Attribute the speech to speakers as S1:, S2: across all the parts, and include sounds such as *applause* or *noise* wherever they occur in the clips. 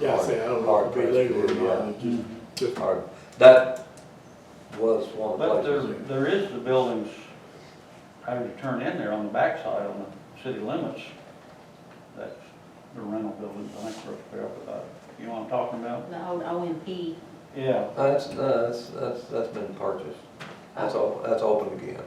S1: Yeah, I say, I don't know if it'd be Hard legal pressed, or not,
S2: yeah.
S1: but just, just,
S3: Or, that was one
S2: But
S3: of the
S2: there,
S3: places.
S2: there is the buildings having to turn in there on the backside on the city limits. That's the rental buildings, I think, we're up about, you know what I'm talking about?
S4: The old OMP,
S2: Yeah,
S3: Uh, That's, no, that's, that's, that's been purchased. That's all, that's open again.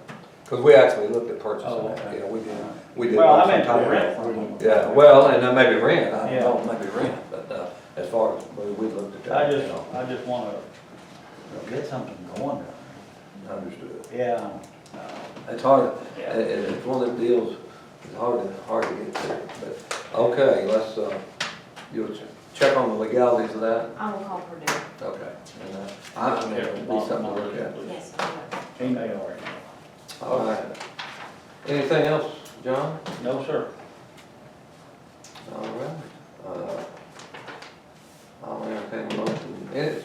S3: Cause we actually looked at purchasing
S2: Oh,
S3: that,
S2: okay.
S3: yeah, we did, we did.
S2: well, I
S3: want some
S2: meant
S3: time.
S2: to rent from them.
S3: Yeah, well, and then maybe rent, I
S2: Yeah.
S3: don't know, maybe rent, but, uh, as far as, we, we looked at that.
S2: I
S3: you
S2: just,
S3: know,
S2: I just wanna get something going Uh, there.
S3: Understood.
S2: Yeah.
S3: It's hard, it,
S2: Yeah.
S3: it- it's one of the deals, it's hard to, hard to get through, but, okay, let's, uh, you'll ch- check on the legalities of that,
S4: I will call Purdue,
S3: okay. And, uh, I, I mean, it'll be something to look at.
S4: yes, I will.
S2: Email
S3: All right. Anything else, John?
S2: No, sir.
S3: All right. Uh, I'll entertain a motion, Any-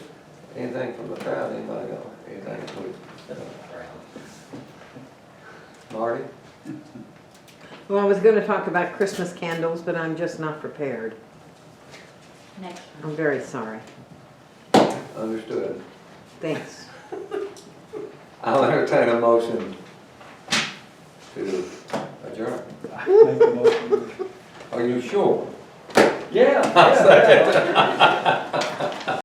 S3: anything from the crowd, anybody got anything to Marty?
S5: Well, I was gonna talk about Christmas candles, but I'm just not prepared.
S4: next
S5: I'm very sorry.
S3: Understood.
S5: Thanks.
S3: I'll entertain a motion to adjourn.
S2: *laughs* Make the motion.
S3: Are you sure?
S2: Yeah, yeah.